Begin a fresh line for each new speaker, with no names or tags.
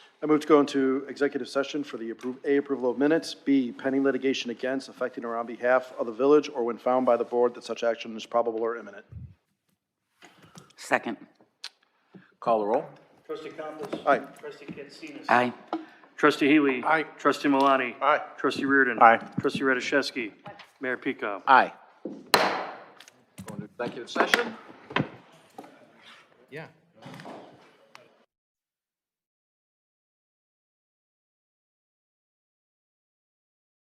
I move to go into executive session for the approve, A, approval of minutes, B, pending litigation against, affecting or on behalf of the village, or when found by the board that such action is probable or imminent.
Second.
Call the roll.
Trustee Campos.
Aye.
Trustee Katsinas.
Aye.
Trustee Healy.
Aye.
Trustee Malani.
Aye.
Trustee Reardon.
Aye.
Trustee Radiszewski. Mayor Pico.
Aye. Going to executive session? Yeah.